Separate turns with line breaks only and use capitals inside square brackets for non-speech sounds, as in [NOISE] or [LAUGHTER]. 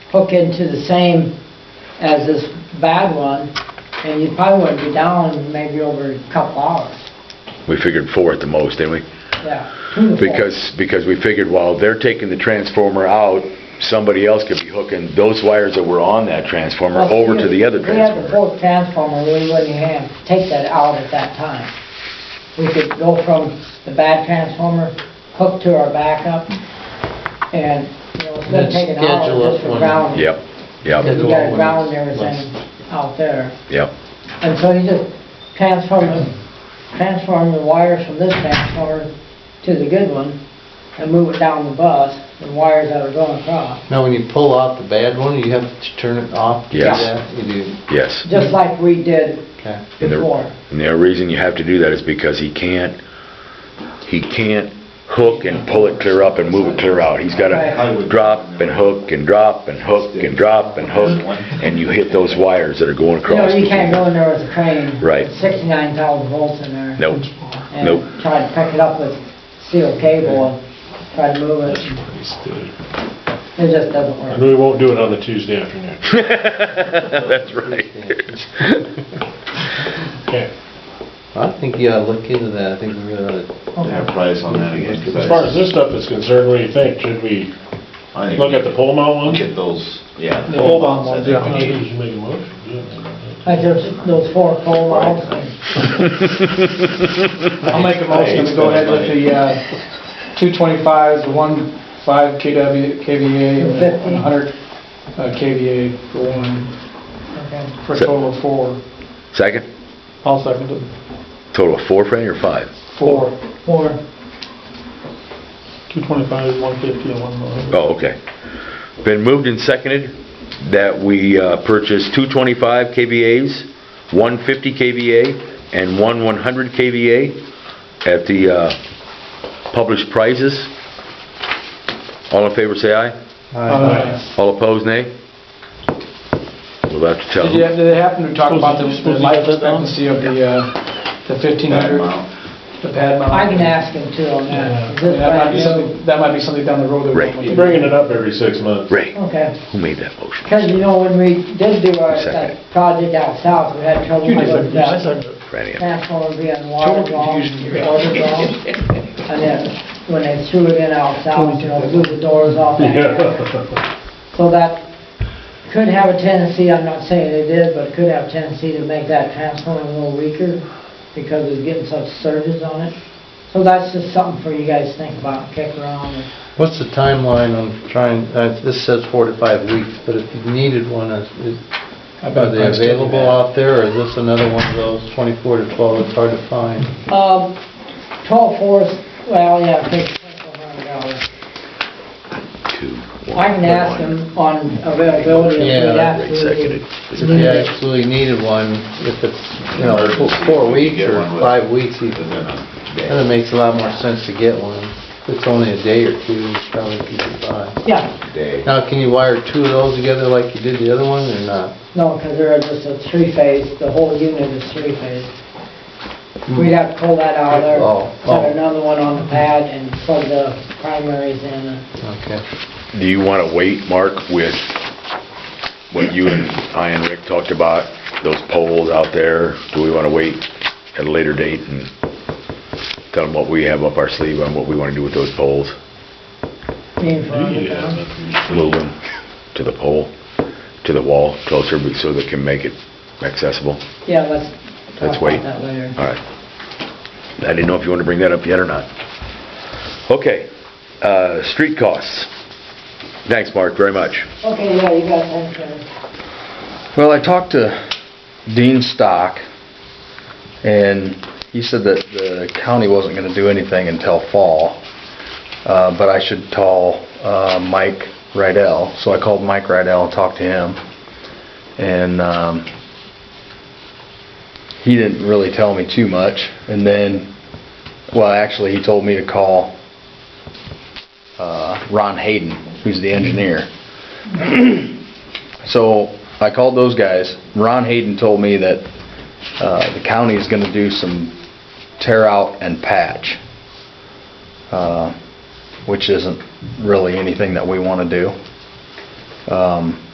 hook into the same as this bad one, and you probably wouldn't be down maybe over a couple hours,
We figured four at the most, didn't we?
yeah. two to four.
Because, because we figured while they're taking the transformer out, somebody else could be hooking those wires that were on that transformer over to the other
If we had the
transformer.
fourth transformer, we wouldn't have, take that out at that time. We could go from the bad transformer, hook to our backup, and, you know, instead of
Then
taking out,
schedule up
just for
one.
ground.
Yep,
You
yep,
gotta ground everything out there.
yep.
And so you just transform, the- transform the wires from this transformer to the good one and move it down the bus, the wires that are going across.
Now, when you pull off the bad one, you have to turn it off? to do
Yes.
that? You do,
Yes.
Just like we did
okay.
And the-
before.
And the reason you have to do that is because he can't, he can't hook and pull it clear up and move it clear out. He's gotta
Right.
drop and hook and drop and hook and drop and hook, and you hit those wires that are
You
going
know,
across.
you can't
[LAUGHS]
go in there with a crane.
Right.
Sixty-nine thousand volts in there.
Nope,
And
nope.
try to pick it up with steel cable and try to move it. It just doesn't
And
work.
we won't do it on the Tuesday afternoon.
That's [LAUGHS] right.
Okay.
I think you ought to look into that, I think we really ought to.
Yeah, price on that again. 'cause I
As far as
just-
this stuff is concerned, what do you think? Should we
I think
look
we
at the pole mount
should
one?
Get those, yeah.
The pole mount
I
one,
think
I
we
think we
need-
should make a motion.
I just, those four pole lines.
I'll make a motion to go ahead with the uh, two twenty-fives, the one five KW, KVA, and the hundred uh, KVA for one,
Okay.
for a total of four.
Second,
I'll second it.
total of four, Franny, or five?
Four.
Four.
Two twenty-fives, one fifty, and one hundred.
Oh, okay. Been moved and seconded that we uh, purchase two 25 KVAs, one 50 KVA, and one 100 KVA at the uh, published prices. All in favor, say aye.
Uh,
All opposed, nay. We'll have to tell
Did you,
them.
did they happen to talk about the the
Supposed to- supposed to
life
get that down?
expectancy of the, uh, the fifteen
That
hundred,
amount.
the pad mount?
I can ask him too on that. Is this
That might
brand
be
new?
something, that might be something down the road. that we
Right.
don't
You're
look at.
bringing it up every six months.
Ray,
Okay.
who made that motion?
Because you know, when we did do our,
Second.
that project out south, we had trouble
You did
with
second, I
that.
seconded it.
Franny, I'm-
Transformer being water
Total
wrong,
confusion here.
water wrong. And then when they threw it in out south, you know, blew the doors off. that area.
[LAUGHS] Yeah.
So that could have a tendency, I'm not saying it did, but it could have a tendency to make that transformer a little weaker because it's getting such surges on it. So that's just something for you guys to think about, and kick around. and-
What's the timeline on trying, uh, this says four to five weeks, but if you needed one, is- is-
I've
are
got a
they
price tag
available
on that.
out there, or is this another one of those 24 to 12, it's hard to find?
Um, twelve fours, well, yeah, take twenty-four hundred dollars.
two, one.
I can ask him on availability if
Yeah,
we have
Ray seconded.
to.
If you actually needed one, if it's, you know, four- four weeks or five weeks even,
Within a day.
then it makes a lot more sense to get one. If it's only a day or two, it's probably easy to buy.
Yeah,
Day.
Now, can you wire two of those together like you did the other one, or not?
no, because they're just a three-phase, the whole unit is three-phase.
Hmm.
We'd have to pull that out of there,
Oh, oh.
put another one on the pad and plug the primaries in.
Okay.
Do you want to wait, Mark, with what you and I and Rick talked about, those polls out there? Do we want to wait at a later date and tell them what we have up our sleeve on what we want to do with those polls?
Mean for underground.
Yeah.
Move them to the pole, to the wall closer so they can make it accessible?
Yeah, let's
Let's
talk
wait.
about that later.
All right. I didn't know if you wanted to bring that up yet or not. Okay, uh, street costs. Thanks, Mark, very much.
Okay, yeah, you got that, Karen.
Well, I talked to Dean Stock, and he said that the county wasn't gonna do anything until fall, uh, but I should call, uh, Mike Rydell. So I called Mike Rydell and talked to him, and, um, he didn't really tell me too much, and then, well, actually, he told me to call, uh, Ron Hayden, who's the engineer. [CLEARS THROAT] So I called those guys. Ron Hayden told me that uh, the county is going to do some tear out and patch, uh, which isn't really anything that we want to do.
Um,